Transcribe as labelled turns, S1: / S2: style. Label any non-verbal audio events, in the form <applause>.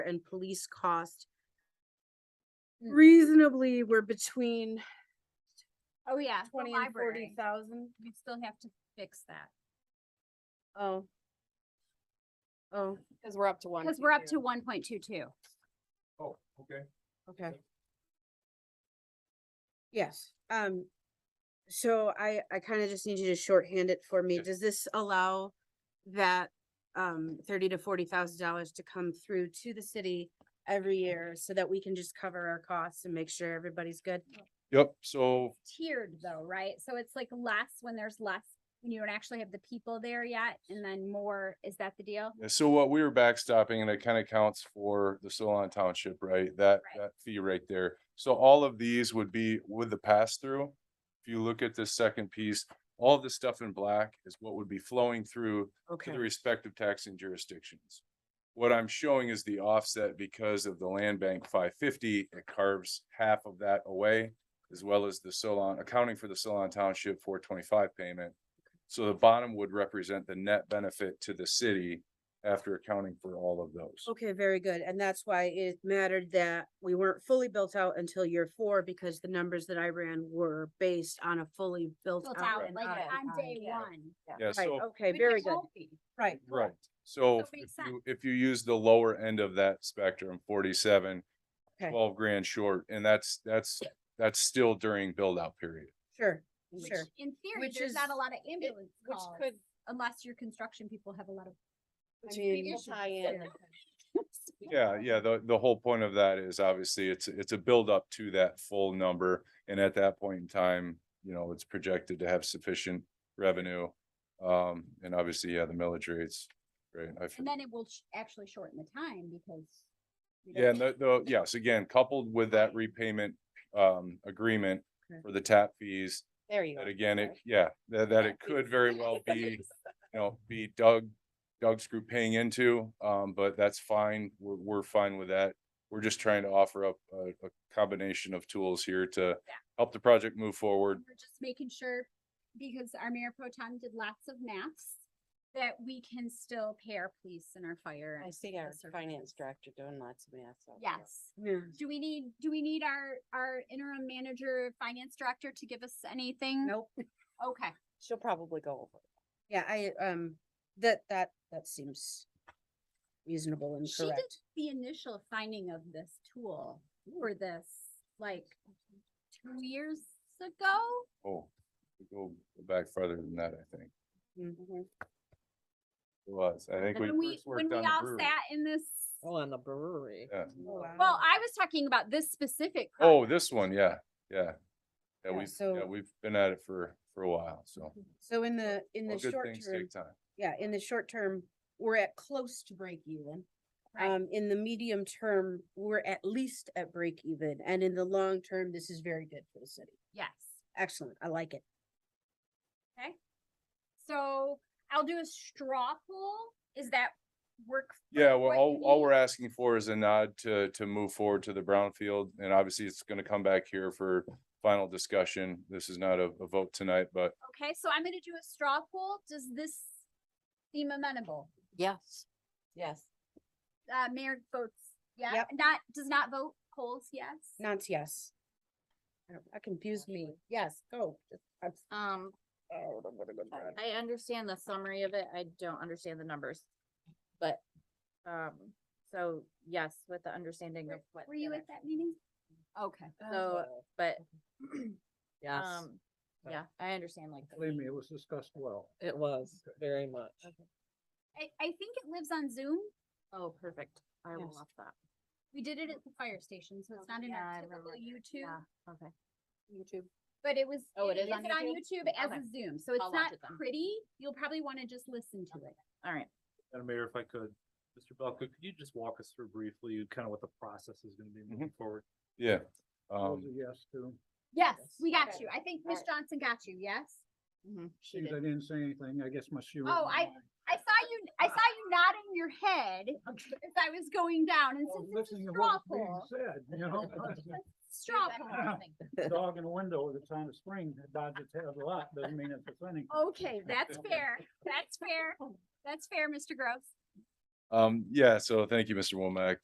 S1: and police cost
S2: Mm.
S1: reasonably we're between
S2: Oh, yeah. the
S1: twenty and forty
S2: library.
S1: thousand.
S2: We still have to fix that,
S1: Oh. Oh,
S3: Cause we're up to one.
S2: because we're up to one point two two.
S4: Oh, okay.
S1: okay. Yes, um, so I, I kind of just need you to shorthand it for me.
S4: Sure.
S1: Does this allow that um thirty to forty thousand dollars to come through to the city every year so that we can just cover our costs and make sure everybody's good?
S4: Yep, so,
S2: Tiered though, right? So it's like less when there's less, when you don't actually have the people there yet, and then more, is that the deal?
S4: so what we were backstopping and it kind of counts for the Solon Township, right? That,
S2: Right.
S4: that fee right there. So all of these would be with the pass through. If you look at this second piece, all the stuff in black is what would be flowing through to
S1: Okay,
S4: the respective taxing jurisdictions. What I'm showing is the offset because of the land bank five fifty, it carves half of that away. As well as the Solon, accounting for the Solon Township four twenty-five payment. So the bottom would represent the net benefit to the city after accounting for all of those.
S1: okay, very good. And that's why it mattered that we weren't fully built out until year four because the numbers that I ran were based on a fully built
S2: Built
S1: out.
S2: out,
S1: and
S2: like
S1: not-
S2: on day
S3: yeah.
S2: one.
S4: Yeah,
S1: Right,
S4: so,
S1: okay,
S2: Which
S1: very
S2: it
S1: good,
S2: won't be.
S1: right.
S4: right, so
S2: So it
S4: if
S2: makes sense.
S4: you, if you use the lower end of that spectrum, forty-seven,
S1: Okay.
S4: twelve grand short, and that's, that's, that's still during build-out period.
S1: Sure,
S2: Which
S1: sure.
S2: in theory,
S3: Which
S2: there's not a
S3: is-
S2: lot of ambulance
S3: Which
S2: calls,
S3: could,
S2: unless your construction people have a lot of.
S3: which
S1: I mean,
S3: could tie in.
S2: <laughs>
S4: Yeah, yeah, the, the whole point of that is obviously it's, it's a buildup to that full number. And at that point in time, you know, it's projected to have sufficient revenue. Um, and obviously, yeah, the millage rates, right? I f-
S2: And then it will sh- actually shorten the time because. we don't
S4: Yeah, and the, the, yes, again, coupled with that repayment, um, agreement
S1: Okay.
S4: for the tap fees.
S3: There you go.
S4: That again, it,
S3: sorry.
S4: yeah, that, that it
S3: Tap
S4: could
S3: fees.
S4: very well be you know, be Doug, Doug's group paying into, um, but that's fine. We're, we're fine with that. We're just trying to offer up a, a combination of tools here to help the project move forward.
S2: We're just making sure, because our mayor pro tem did lots of maths, that we can still pay our police and our fire.
S3: I
S2: and
S3: see
S2: the
S3: our
S2: services.
S3: finance director doing lots of math. out there.
S2: Yes.
S1: Yeah.
S2: Do we need, do we need our, our interim manager, finance director to give us anything?
S1: Nope.
S2: Okay.
S3: She'll probably go over. it.
S1: Yeah, I, um, that, that, that seems reasonable and
S2: She did
S1: correct.
S2: the initial finding of this tool for this, like, two years ago?
S4: Oh, we go back farther than that, I think.
S1: Mhm.
S2: Mm-hmm.
S4: It was, I think we
S2: When we,
S4: first
S2: when
S4: worked
S2: we
S4: on the
S2: all
S4: brewery.
S2: sat in this,
S5: Oh, and the brewery.
S4: Yeah.
S2: well, I was talking about this specific.
S4: Oh,
S2: project.
S4: this one, yeah, yeah.
S1: Yeah,
S4: Yeah, we've, yeah,
S1: so-
S4: we've been at it for, for a while, so.
S1: So in the, in
S4: All
S1: the
S4: good
S1: short
S4: things
S1: term,
S4: take time.
S1: yeah, in the short term, we're at close to break even.
S2: Right.
S1: Um, in the medium term, we're at least at break even, and in the long term, this is very good for the city.
S2: Yes.
S1: Excellent, I like it.
S2: So I'll do a straw poll. Is that work? for
S4: Yeah, well,
S2: what
S4: all,
S2: you
S4: all
S2: need?
S4: we're asking for is a nod to, to move forward to the brownfield, and obviously it's gonna come back here for final discussion. This is not a, a vote tonight, but
S2: Okay, so I'm gonna do a straw poll. Does this seem amenable?
S5: Yes.
S3: Yes.
S2: Uh, mayor votes, yeah,
S1: Yep.
S2: not, does not vote, polls, yes?
S1: Nance, yes. I don't- That confused me. Yes, go. I'm-
S6: Um,
S1: oh, I'm gonna go back.
S6: I understand the summary of it. I don't understand the numbers. But, um, so yes, with the understanding of what.
S2: Were
S6: the
S2: you
S6: other-
S2: at that meeting? Um, Okay.
S6: So, but,
S7: <clears throat>
S5: Yes,
S6: um,
S5: But-
S6: yeah, I understand like. the
S7: Believe me, it was discussed well.
S5: it was very much.
S2: I, I think it lives on Zoom.
S6: Oh, perfect. I will
S1: Yes.
S6: watch that.
S2: We did it at the fire station, so it's not in
S6: Yeah, I
S2: our typical
S6: remember that.
S2: YouTube,
S6: Yeah, okay.
S3: YouTube.
S2: but it was.
S6: Oh, it is on
S2: It's on
S6: YouTube?
S2: YouTube as
S6: Okay.
S2: a Zoom, so it's
S6: I'll watch
S2: not
S6: it then.
S2: pretty. You'll probably wanna just listen to it.
S6: All right.
S7: Madam Mayor, if I could, Mr. Belka, could you just walk us through briefly kind of what the process is gonna be moving forward?
S4: yeah.
S7: Those
S4: Um,
S7: are yes to,
S2: Yes,
S5: Yes.
S2: we got
S3: Okay.
S2: you. I think
S3: All
S2: Miss
S3: right.
S2: Johnson got you, yes?
S7: see, I didn't say anything. I guess my shoe. was
S2: Oh,
S7: on
S2: I-
S7: my-
S2: I saw you, I saw you nodding your
S3: <laughs>
S2: head as I was going down and
S7: I was
S2: since it's
S7: Oh, listening
S2: a
S7: to
S2: straw
S7: what
S2: poll,
S7: was being said, you know?
S2: <laughs>
S7: <laughs>
S2: straw poll.
S7: Dog in the window at the time of spring that dodges its head a lot, doesn't mean it's offending.
S3: <laughs>
S2: Okay, that's fair. That's fair. That's fair, Mr. Gross.
S4: um, yeah, so thank you, Mr. Womack.